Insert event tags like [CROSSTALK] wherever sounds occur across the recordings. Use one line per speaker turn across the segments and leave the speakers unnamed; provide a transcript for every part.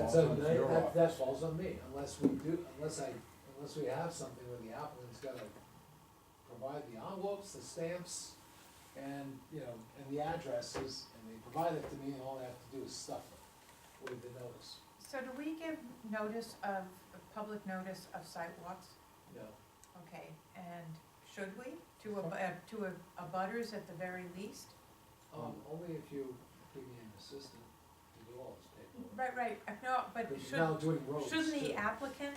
That's,
falls
on-
on your
that,
lot.
that falls on me, unless we do, unless I, unless we have something where the applicant's gotta provide the envelopes, the stamps, and, you know, and the addresses, and they provide it to me, and all I have to do is stuff it with the notice,
So do we give notice of, of public notice of site walks?
you know.
Okay, and should we, to a, uh, to a, a butters at the very least?
Um, only if you give me an assistant to do all this paperwork.
Right, right, uh, no, but
Because
should,
Now doing Mm-hmm. roads
shouldn't the
too.
applicant,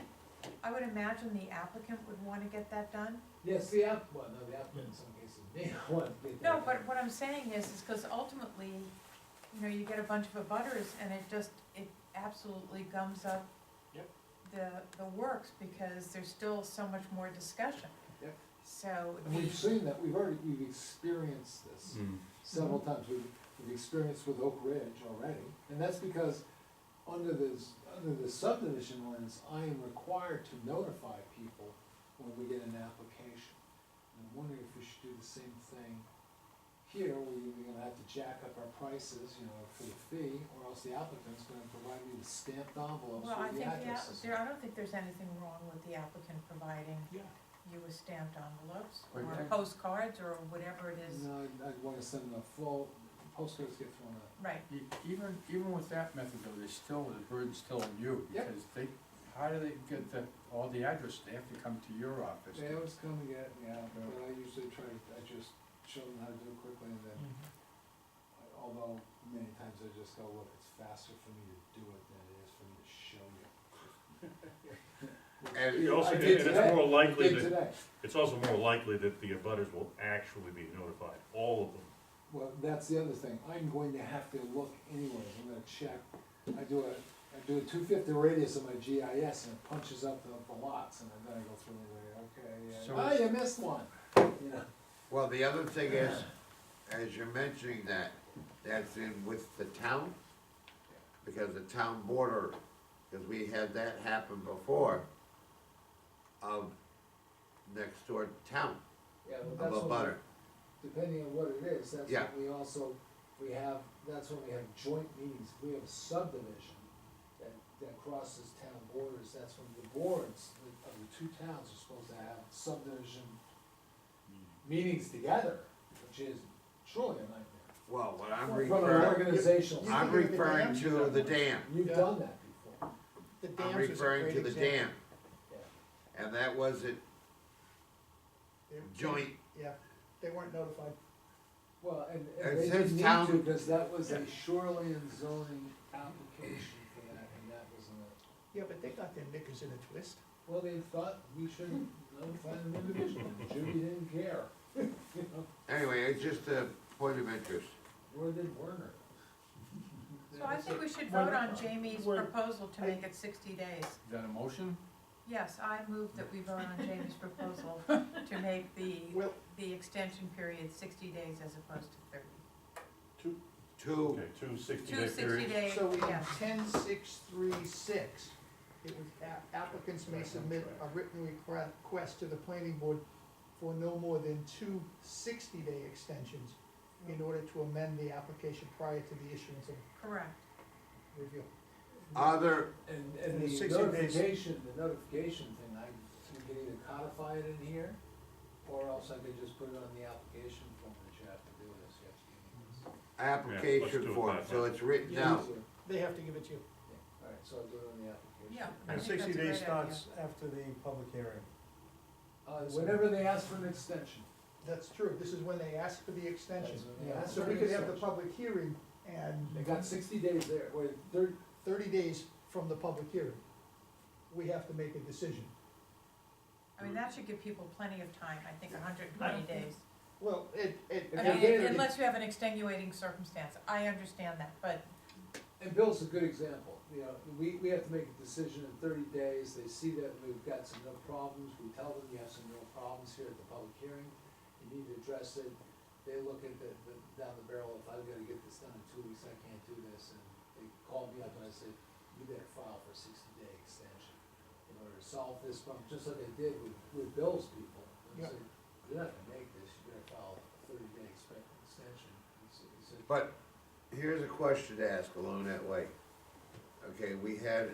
I would imagine the applicant would wanna get that done?
Yes, the app, well, no, the applicant in some cases may [LAUGHS] not want to get that.
No, but what I'm saying is, is cause ultimately, you know, you get a bunch of abutters and it just, it absolutely gums up
Yep.
the, the works, because there's still so much more discussion.
Yep.
So
And
the,
we've seen that, we've already, we've experienced this. several times, we've, we've experienced with Oak Ridge already, and that's because under this, under the subdivision lens, I am required to notify people when we get an application. And I'm wondering if we should do the same thing here, where we're gonna have to jack up our prices, you know, for the fee, or else the applicant's gonna provide me with stamped envelopes
well, I
with the
think, yeah,
addresses.
there, I don't think there's anything wrong with the applicant providing
Yeah.
you with stamped envelopes,
Right,
or
right.
postcards, or whatever it is,
No, I'd, I'd wanna send them a full, postcards get thrown out.
right,
E- Even, even with that method though, there's still, the burden's still on you,
Yep.
because they, how do they get the, all the address, they have to come to your office.
They always come and get, yeah, but I usually try, to I just show them how to do it quickly and then, I- although many times I just go, look, it's faster for me to do it than it is for me to show [LAUGHS] you.
And
You also,
I
and
did today.
it's more likely
Did
that,
today,
it's also more likely that the abutters will actually be notified, all of them.
well, that's the other thing, I'm going to have to look anyways, I'm gonna check, I do a, I do a two fifty radius of my GIS and it punches up the, the lots and then I go through and
So-
like, okay, yeah, oh, you missed one, you know.
Well, the other thing is, as you're mentioning that, that's in with the town, because the town border, because we had that happen before, of next door town,
Yeah, well,
of
that's
a
what we-
butter.
depending on what it is, that's
Yeah.
what we also, we have, that's when we have joint meetings, we have a subdivision that, that crosses town borders, that's when the boards of the two towns are supposed to have subdivision meetings together, which is truly a nightmare.
Well, what I'm
From an
referring,
organizational,
I'm
standpoint.
referring to the dam,
you've done that before,
The
I'm
dams is a
referring
great
to the dam,
example.
yeah.
and that was at
They-
joint,
Yeah, they weren't notified.
Well, and,
And
and they
since
didn't need
town-
to, because that was a shoreline zoning application for that, and that was in a
Yeah, but they got their knickers in a twist.
Well, they thought we should notify them individually, Judy didn't care, you know,
anyway, it's just a point of interest.
nor did Werner.
so I think we should
Well,
vote on Jamie's
well,
proposal to
I-
make it sixty days.
Is that a motion?
Yes, I move that we vote on Jamie's proposal to make the,
Well,
the extension period sixty days as opposed to thirty.
Two,
Okay, two sixty
Two
day
sixty
periods.
day,
so in
yeah,
ten six three six, it was a- applicants may submit a written requ- request to the planning board for no more than two sixty-day extensions in order to amend the application prior to the issuance of
correct.
review.
other,
And,
And
and
the
the
60 days-
notification, the notification thing, I, you can either codify it in here, or else I could just put it on the application form that you have to do this, you have to give me this.
do
application
it
form,
that
so
way.
it's written out.
Easier.
They have to give it to you.
Yeah, Alright, so I'll do it on the application.
Yeah. I
And
think
sixty
that's a
days
great idea.
starts after the public hearing.
Uh, whenever they ask for an extension.
That's true, this is when they ask for the extension.
That's when they ask
So
for
we
the
could have the
extension.
public hearing and.
They got sixty days there, wait, thirty,
thirty days from the public hearing, we have to make a decision.
I mean, that should give people plenty of time, I think hundred and twenty days.
Well, it, it.
If
I
you're
mean,
getting-
unless you have an extenuating circumstance, I understand that, but,
And Bill's a good example, you know, we, we have to make a decision in thirty days, they see that we've got some real problems, we tell them you have some real problems here at the public hearing, you need to address it, they look at the, the, down the barrel, if I've gotta get this done in two weeks, I can't do this, and they call me up and I say, you better file for a sixty day extension in order to solve this problem, just like they did with, with Bill's people. They
Yeah.
said, you're not gonna make this, you better file a thirty day expect, extension, he said,
But here's a question to ask along that way. okay, we had